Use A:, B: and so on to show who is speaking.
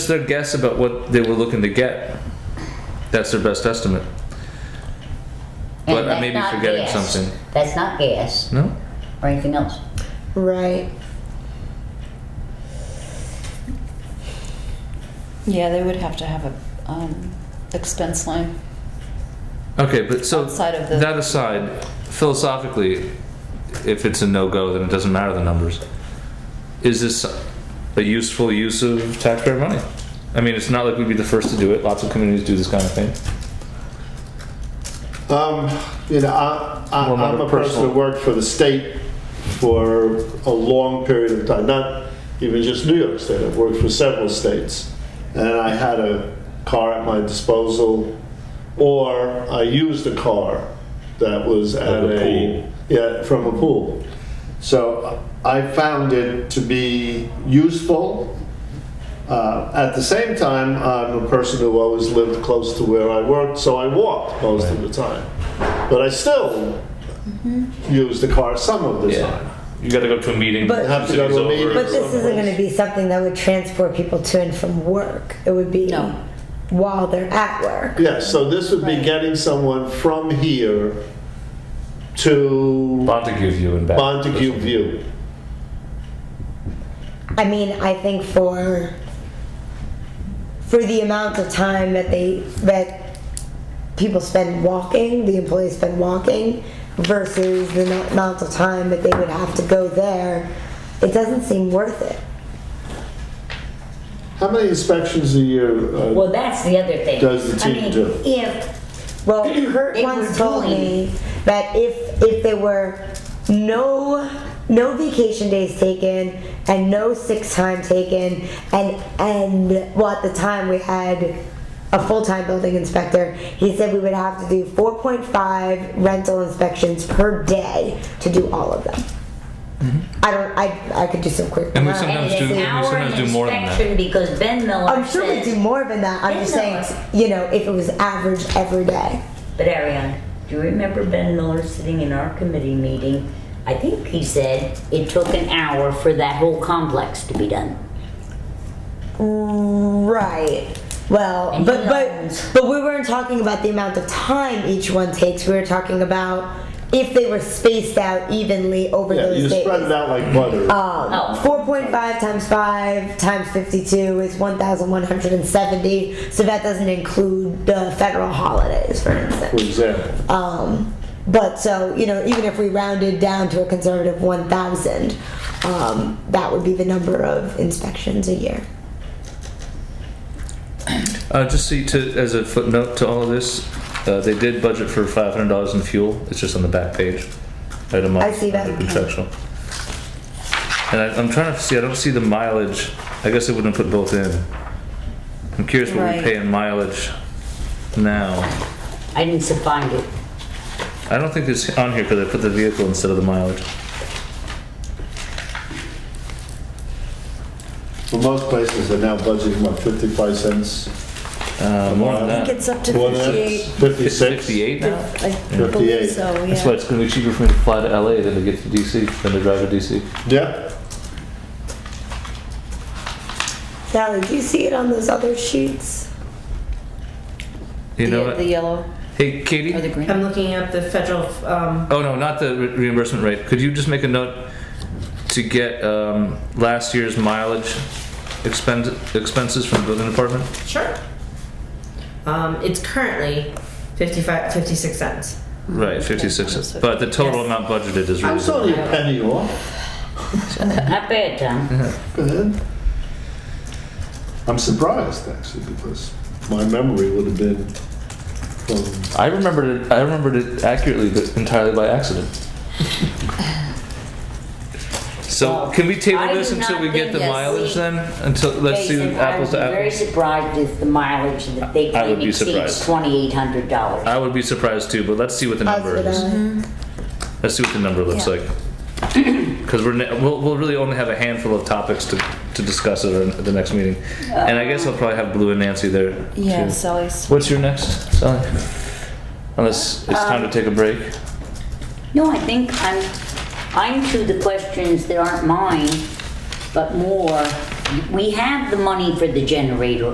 A: It's their guess about what they were looking to get. That's their best estimate.
B: And
A: But I
B: that's
A: may be
B: not
A: forgetting
B: gas.
A: something.
B: That's not gas
A: No?
B: or anything else.
C: Right.
D: Yeah, they would have to have a, um, expense line.
A: Okay, but so,
D: Outside of the-
A: that aside, philosophically, if it's a no-go, then it doesn't matter the numbers. Is this a useful use of taxpayer money? I mean, it's not like we'd be the first to do it. Lots of communities do this kind of thing.
E: Um, you know, I, I,
A: Well, not
E: I'm
A: a
E: a person
A: personal-
E: who worked for the state for a long period of time, not even just New York State, I've worked for several states. And I had a car at my disposal, or I used a car that was at
F: a
E: a, yeah, from a pool. So I found it to be useful. Uh, at the same time, I'm a person who always lived close to where I worked, so I walked most of the time. But I still
D: Mm-hmm.
E: use the car some of the time.
A: You got to go to a meeting.
C: But-
E: Have to go to a
F: City's
E: meeting
F: over.
C: But this isn't
E: someplace.
C: going to be something that would transport people to and from work. It would be
D: No.
C: while they're at work.
E: Yeah, so this would be getting someone from here to
A: Montague View and back.
E: Montague View.
C: I mean, I think for for the amount of time that they that people spend walking, the employees spend walking versus the no- amount of time that they would have to go there, it doesn't seem worth it.
E: How many inspections a year? uh,
B: Well, that's the other thing.
E: Does the
B: I
E: team
B: mean,
E: do?
B: If,
C: Well, Kurt
B: They
C: once
B: were
C: told
B: doing-
C: me that if if there were no no vacation days taken and no sick time taken and and well at the time we had a full-time building inspector he said we would have to do 4.5 rental inspections per day to do all of them i don't i i could do some quick
A: Mm-hmm. And we
C: math.
A: some- Sometimes
B: and it's
A: do-
B: an
A: we
B: hour
A: sometimes do
B: an
A: more than that.
B: inspection because Ben Miller
C: i'm sure we do
B: said-
C: more than that i'm just saying you know if it was average every day
B: But Ariane, do you remember Ben Miller sitting in our committee meeting? I think he said it took an hour for that whole complex to be done.
C: Right. Well,
B: And
C: but
B: he
C: but
B: owns.
C: but we weren't talking about the amount of time each one takes. We were talking about if they were spaced out evenly over
E: Yeah,
C: those
E: you
C: days.
E: spread it out like butter.
D: Uh,
C: Um,
B: Oh.
C: 4.5 times 5 times 52 is 1,170. So that doesn't include the federal holidays, for
E: for
C: instance.
E: example.
C: Um, but so, you know, even if we rounded down to a conservative 1,000, um, that would be the number of inspections a year.
A: Uh, just see, to, as a footnote to all of this, uh, they did budget for five hundred dollars in fuel. It's just on the back page, item
C: I
A: up,
C: see that.
A: under Contractual. And I, I'm trying to see. I don't see the mileage. I guess they wouldn't put both in. I'm curious what we
D: Right.
A: pay in mileage now.
B: I didn't s- find it.
A: I don't think it's on here because I put the vehicle instead of the mileage.
E: Well, most places are now budgeting about 55 cents.
A: Uh, more than
D: I
A: that.
D: think it's up to
E: More than that?
D: fifty-eight.
E: 56?
A: Fifty-eight now.
D: I believe
E: 58.
D: so,
A: That's why
D: yeah.
A: it's going to be cheaper for me to fly to LA than to get to DC than to drive to DC.
E: Yeah,
C: Sally, do you see it on those other sheets?
A: You know
D: The, the
A: what?
D: yellow
A: Hey, Katie.
D: or the green.
G: I'm looking up the federal, um,
A: Oh, no, not the re- reimbursement rate. Could you just make a note to get um, last year's mileage expend- expenses from the building department?
G: sure. Um, it's currently 55, 56 cents.
A: Right, 56 cents. But the total
G: Yes.
A: amount budgeted is
E: I was
A: reasonable.
E: only a penny off.
B: Not bad, Tom.
E: Go ahead. I'm surprised, actually, because my memory would have been from
A: I remembered it, I remembered it accurately, but entirely by accident. So
B: Well,
A: can we table
B: Uh, I
A: this
B: do
A: until
B: not
A: we get
B: think
A: the
B: that's
A: mileage
B: the-
A: then? Until, let's see
B: Jason,
A: apples to
B: I was very
A: apples.
B: surprised if the mileage that they
A: I would
B: claim
A: be
B: exceeds
A: surprised.
B: twenty-eight hundred dollars.
A: I would be surprised too, but let's see what the number
C: Positive
A: is.
C: eye.
A: Let's see what the number looks
D: Yeah.
A: like. Because we're, ne- we'll, we'll really only have a handful of topics to, to discuss at, our, at the next meeting. and I guess I'll probably have Blue and Nancy there.
D: Yeah,
A: too.
D: Sally's.
A: What's your next, Sally? Unless it's
D: Uh,
A: time to take a break.
B: No, I think I'm, I'm to the questions that aren't mine, but more we have the money for the generator